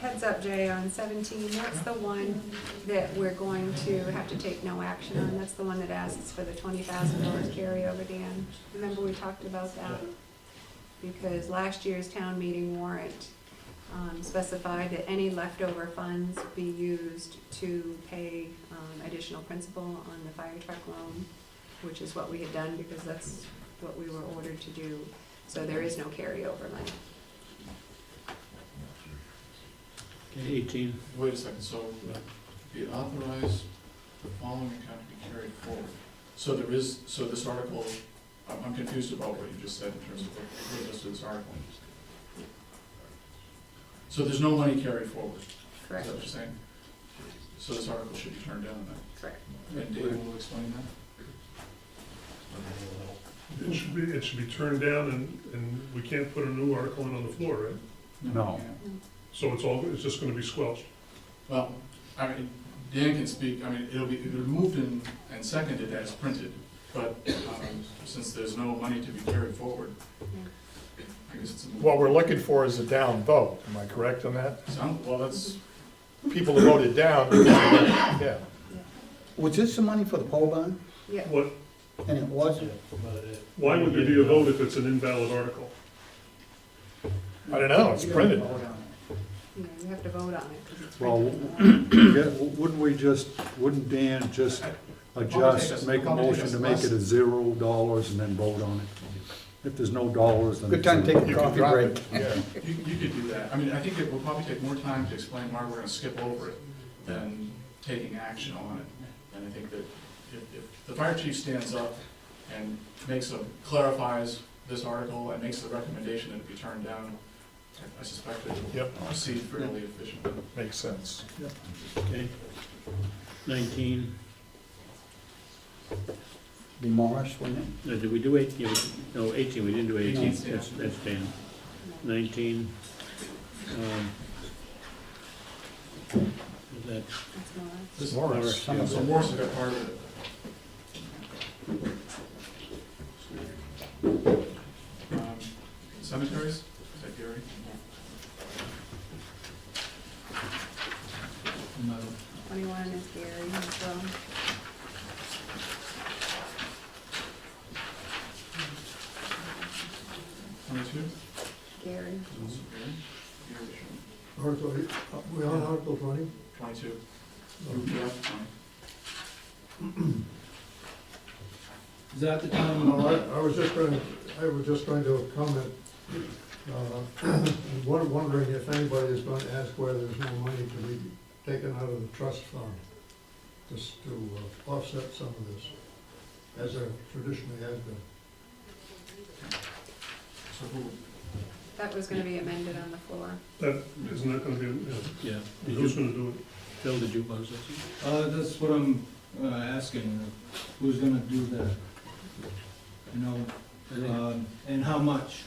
heads up, Jay, on seventeen, that's the one that we're going to have to take no action on. That's the one that asks for the twenty thousand dollars carryover, Dan. Remember, we talked about that? Because last year's town meeting warrant um, specified that any leftover funds be used to pay um, additional principal on the fire truck loan, which is what we had done, because that's what we were ordered to do. So there is no carryover money. Okay, eighteen. Wait a second, so be authorized the following account to be carried forward. So there is, so this article, I'm, I'm confused about what you just said in terms of what, what goes to this article. So there's no money carried forward, is that Correct, what you're saying? So this article should be turned down correct. then, and David will explain that? It should be, it should be turned down and, and we can't put a new article in on the floor, right? No. yeah. So it's all, it's just gonna be squelched. Well, I mean, Dan can speak, I mean, it'll be, it'll be moved and, and seconded as printed, but, um, since there's no money to be carried forward, I guess it's a. What we're looking for is a down vote, am I correct on that? Sound, well, that's, People who voted down, yeah. Was this the money for the pole barn? Yeah, What, And it wasn't? why would there be a vote if it's an invalid article? I don't know, it's printed. you know, you have to vote on it, because it's Well, printed in the warrant. Yeah, wouldn't we just, wouldn't Dan just adjust, make a motion to make it a zero dollars and then vote on it? If there's no dollars, then. Good time to take a coffee drop break. it, Yeah, you, you could do that. I mean, I think it will probably take more time to explain why we're gonna skip over it than taking action on it. And I think that if, if the fire chief stands up and makes a, clarifies this article and makes the recommendation that it be turned down, I- I suspect it will Yep. proceed fairly efficiently. makes sense. Okay. Nineteen. Be Morris, wouldn't it? No, Uh, did we do eight, yeah, we- no, eighteen, we didn't do eighteen, Eighteen's Dan. that's, that's Dan. Nineteen. um, is that- That's not- This- Morris, Yeah, so Morris got part of it. Um, Cemeteries, is that Gary? No. Twenty-one is Gary, so. Twenty-two? Gary. is also Gary. Gary, sure. Article, uh, we on Article twenty? Twenty-two. Yeah, fine. Is that the time No, I, I was just going, I was just going to comment, uh, I'm won- wondering if anybody is going to ask why there's no money to be taken out of the trust fund, just to uh, offset some of this, as there traditionally has been. So who, That was gonna be amended on the floor. That, isn't that gonna be, yeah, Yeah, did who's you, gonna do it? Phil, did you buzz this? Uh, that's what I'm, uh, asking, who's gonna do that? You know, I think- um, and how much?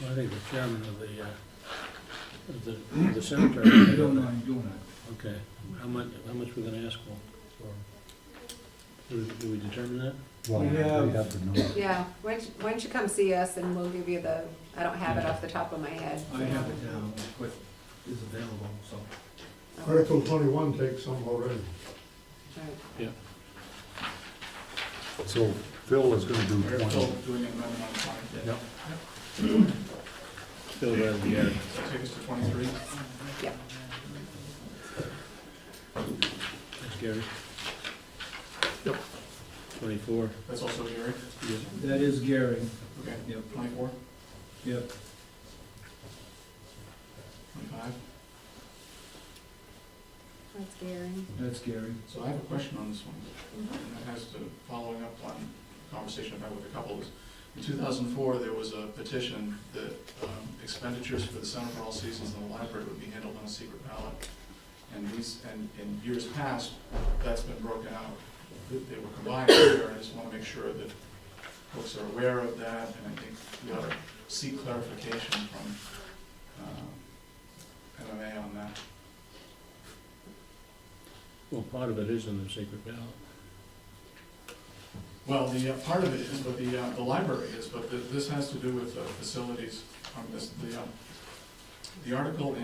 well, I think the chairman of the, uh, of the, of the cemetery. I don't mind doing it. Okay, how much, how much we're gonna ask for? Do we- do we determine that? Well, we have to know. Yeah, why don't you- why don't you come see us and we'll give you the, I don't have it off the top of my head. I have it down, what is available, so. Okay. Article twenty-one takes some already. Right. So Phil is gonna do we're still twenty. doing an amendment on five. Yep. Phil, rather than Gary. So take us to twenty-three. That's Gary. Yep. Twenty-four, That's also Gary. yeah. That is Gary, Okay, yep, twenty-four, yep. twenty-five. That's Gary. That's Gary. So I have a question on this one. and that has to, following up on conversation I've had with a couple, is in two thousand and four, there was a petition that um, expenditures for the Center for All Seasons in the library would be handled on a secret ballot. And these, and in years past, that's been broken out, that they were combined here, and I just wanna make sure that folks are aware of that, and I think we ought to seek clarification from, uh, um, MMA on that. Well, part of it is in the secret ballot. Well, the, uh, part of it is, but the, uh, the library is, but th- this has to do with uh, facilities, um, this, the, um, the article